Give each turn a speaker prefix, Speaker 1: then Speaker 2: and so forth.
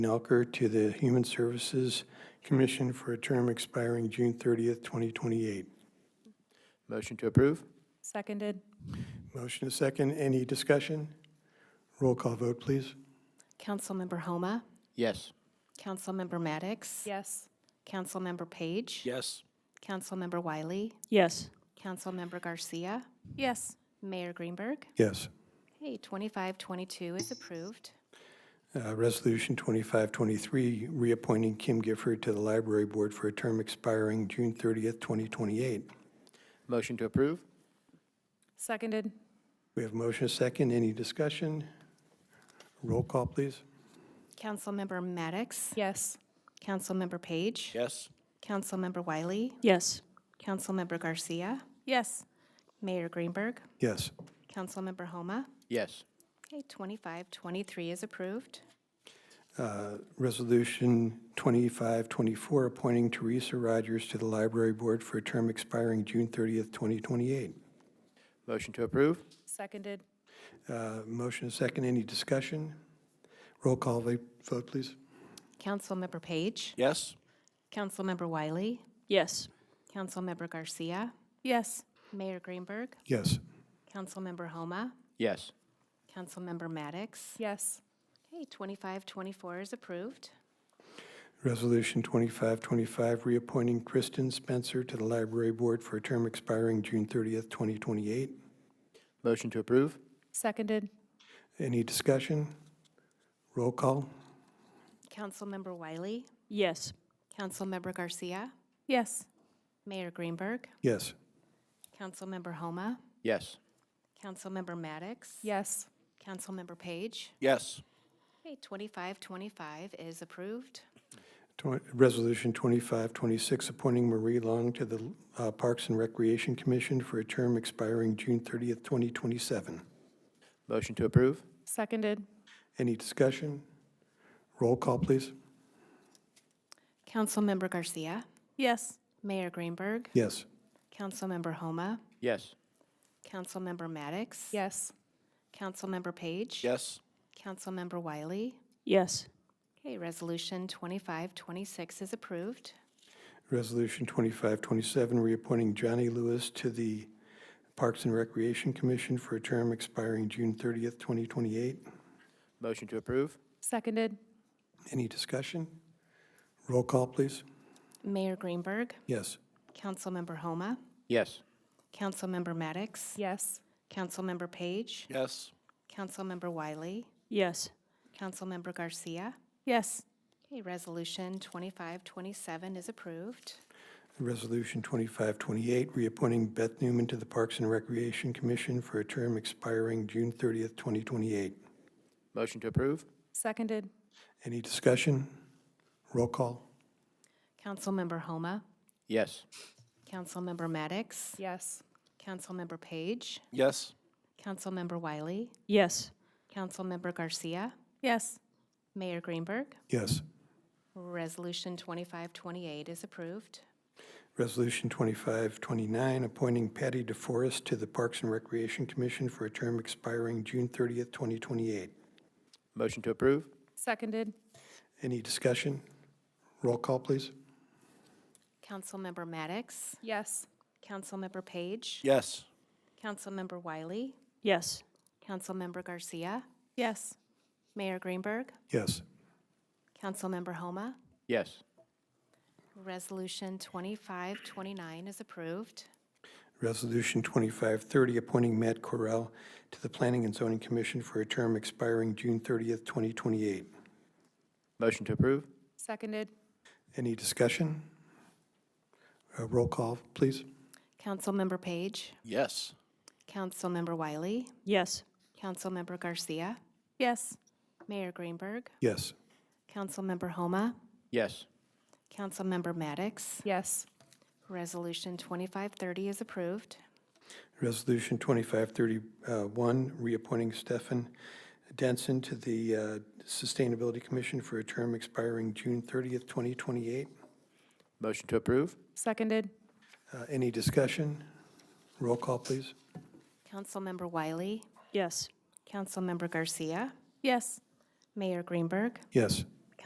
Speaker 1: Nelker to the Human Services Commission for a term expiring June 30th, 2028.
Speaker 2: Motion to approve?
Speaker 3: Seconded.
Speaker 1: Motion is second. Any discussion? Roll call vote, please.
Speaker 4: Councilmember Homa,
Speaker 2: Yes.
Speaker 4: Councilmember Maddox,
Speaker 3: Yes.
Speaker 4: Councilmember Page,
Speaker 2: Yes.
Speaker 4: Councilmember Wiley,
Speaker 5: Yes.
Speaker 4: Councilmember Garcia,
Speaker 3: Yes.
Speaker 4: Mayor Greenberg.
Speaker 1: Yes.
Speaker 4: Okay, 2522 is approved.
Speaker 1: Uh, Resolution 2523, reappointing Kim Gifford to the Library Board for a term expiring June 30th, 2028.
Speaker 2: Motion to approve?
Speaker 3: Seconded.
Speaker 1: We have motion is second. Any discussion? Roll call, please.
Speaker 4: Councilmember Maddox,
Speaker 3: Yes.
Speaker 4: Councilmember Page,
Speaker 2: Yes.
Speaker 4: Councilmember Wiley,
Speaker 5: Yes.
Speaker 4: Councilmember Garcia,
Speaker 3: Yes.
Speaker 4: Mayor Greenberg,
Speaker 1: Yes.
Speaker 4: Councilmember Homa.
Speaker 2: Yes.
Speaker 4: Okay, 2523 is approved.
Speaker 1: Uh, Resolution 2524, appointing Teresa Rogers to the Library Board for a term expiring June 30th, 2028.
Speaker 2: Motion to approve?
Speaker 3: Seconded.
Speaker 1: Uh, Motion is second. Any discussion? Roll call va- vote, please.
Speaker 4: Councilmember Page,
Speaker 2: Yes.
Speaker 4: Councilmember Wiley,
Speaker 5: Yes.
Speaker 4: Councilmember Garcia,
Speaker 3: Yes.
Speaker 4: Mayor Greenberg,
Speaker 1: Yes.
Speaker 4: Councilmember Homa,
Speaker 2: Yes.
Speaker 4: Councilmember Maddox.
Speaker 3: Yes.
Speaker 4: Okay, 2524 is approved.
Speaker 1: Resolution 2525, reappointing Kristen Spencer to the Library Board for a term expiring June 30th, 2028.
Speaker 2: Motion to approve?
Speaker 3: Seconded.
Speaker 1: Any discussion? Roll call?
Speaker 4: Councilmember Wiley,
Speaker 5: Yes.
Speaker 4: Councilmember Garcia,
Speaker 3: Yes.
Speaker 4: Mayor Greenberg,
Speaker 1: Yes.
Speaker 4: Councilmember Homa,
Speaker 2: Yes.
Speaker 4: Councilmember Maddox.
Speaker 3: Yes.
Speaker 4: Councilmember Page.
Speaker 2: Yes.
Speaker 4: Okay, 2525 is approved.
Speaker 1: Twen- Resolution 2526, appointing Marie Long to the uh, Parks and Recreation Commission for a term expiring June 30th, 2027.
Speaker 2: Motion to approve?
Speaker 3: Seconded.
Speaker 1: Any discussion? Roll call, please.
Speaker 4: Councilmember Garcia,
Speaker 3: Yes.
Speaker 4: Mayor Greenberg,
Speaker 1: Yes.
Speaker 4: Councilmember Homa,
Speaker 2: Yes.
Speaker 4: Councilmember Maddox.
Speaker 3: Yes.
Speaker 4: Councilmember Page.
Speaker 2: Yes.
Speaker 4: Councilmember Wiley.
Speaker 5: Yes.
Speaker 4: Okay, Resolution 2526 is approved.
Speaker 1: Resolution 2527, reappointing Johnny Lewis to the Parks and Recreation Commission for a term expiring June 30th, 2028.
Speaker 2: Motion to approve?
Speaker 3: Seconded.
Speaker 1: Any discussion? Roll call, please.
Speaker 4: Mayor Greenberg,
Speaker 1: Yes.
Speaker 4: Councilmember Homa,
Speaker 2: Yes.
Speaker 4: Councilmember Maddox,
Speaker 3: Yes.
Speaker 4: Councilmember Page,
Speaker 2: Yes.
Speaker 4: Councilmember Wiley,
Speaker 5: Yes.
Speaker 4: Councilmember Garcia.
Speaker 3: Yes.
Speaker 4: Okay, Resolution 2527 is approved.
Speaker 1: Resolution 2528, reappointing Beth Newman to the Parks and Recreation Commission for a term expiring June 30th, 2028.
Speaker 2: Motion to approve?
Speaker 3: Seconded.
Speaker 1: Any discussion? Roll call?
Speaker 4: Councilmember Homa,
Speaker 2: Yes.
Speaker 4: Councilmember Maddox,
Speaker 3: Yes.
Speaker 4: Councilmember Page,
Speaker 2: Yes.
Speaker 4: Councilmember Wiley,
Speaker 5: Yes.
Speaker 4: Councilmember Garcia,
Speaker 3: Yes.
Speaker 4: Mayor Greenberg.
Speaker 1: Yes.
Speaker 4: Resolution 2528 is approved.
Speaker 1: Resolution 2529, appointing Patty DeForest to the Parks and Recreation Commission for a term expiring June 30th, 2028.
Speaker 2: Motion to approve?
Speaker 3: Seconded.
Speaker 1: Any discussion? Roll call, please.
Speaker 4: Councilmember Maddox,
Speaker 3: Yes.
Speaker 4: Councilmember Page,
Speaker 2: Yes.
Speaker 4: Councilmember Wiley,
Speaker 5: Yes.
Speaker 4: Councilmember Garcia,
Speaker 3: Yes.
Speaker 4: Mayor Greenberg,
Speaker 1: Yes.
Speaker 4: Councilmember Homa.
Speaker 2: Yes.
Speaker 4: Resolution 2529 is approved.
Speaker 1: Resolution 2530, appointing Matt Correll to the Planning and Zoning Commission for a term expiring June 30th, 2028.
Speaker 2: Motion to approve?
Speaker 3: Seconded.
Speaker 1: Any discussion? Uh, Roll call, please.
Speaker 4: Councilmember Page,
Speaker 2: Yes.
Speaker 4: Councilmember Wiley,
Speaker 5: Yes.
Speaker 4: Councilmember Garcia,
Speaker 3: Yes.
Speaker 4: Mayor Greenberg,
Speaker 1: Yes.
Speaker 4: Councilmember Homa,
Speaker 2: Yes.
Speaker 4: Councilmember Maddox.
Speaker 3: Yes.
Speaker 4: Resolution 2530 is approved.
Speaker 1: Resolution 2531, reappointing Stefan Denson to the uh, Sustainability Commission for a term expiring June 30th, 2028.
Speaker 2: Motion to approve?
Speaker 3: Seconded.
Speaker 1: Uh, Any discussion? Roll call, please.
Speaker 4: Councilmember Wiley,
Speaker 5: Yes.
Speaker 4: Councilmember Garcia,
Speaker 3: Yes.
Speaker 4: Mayor Greenberg,
Speaker 1: Yes.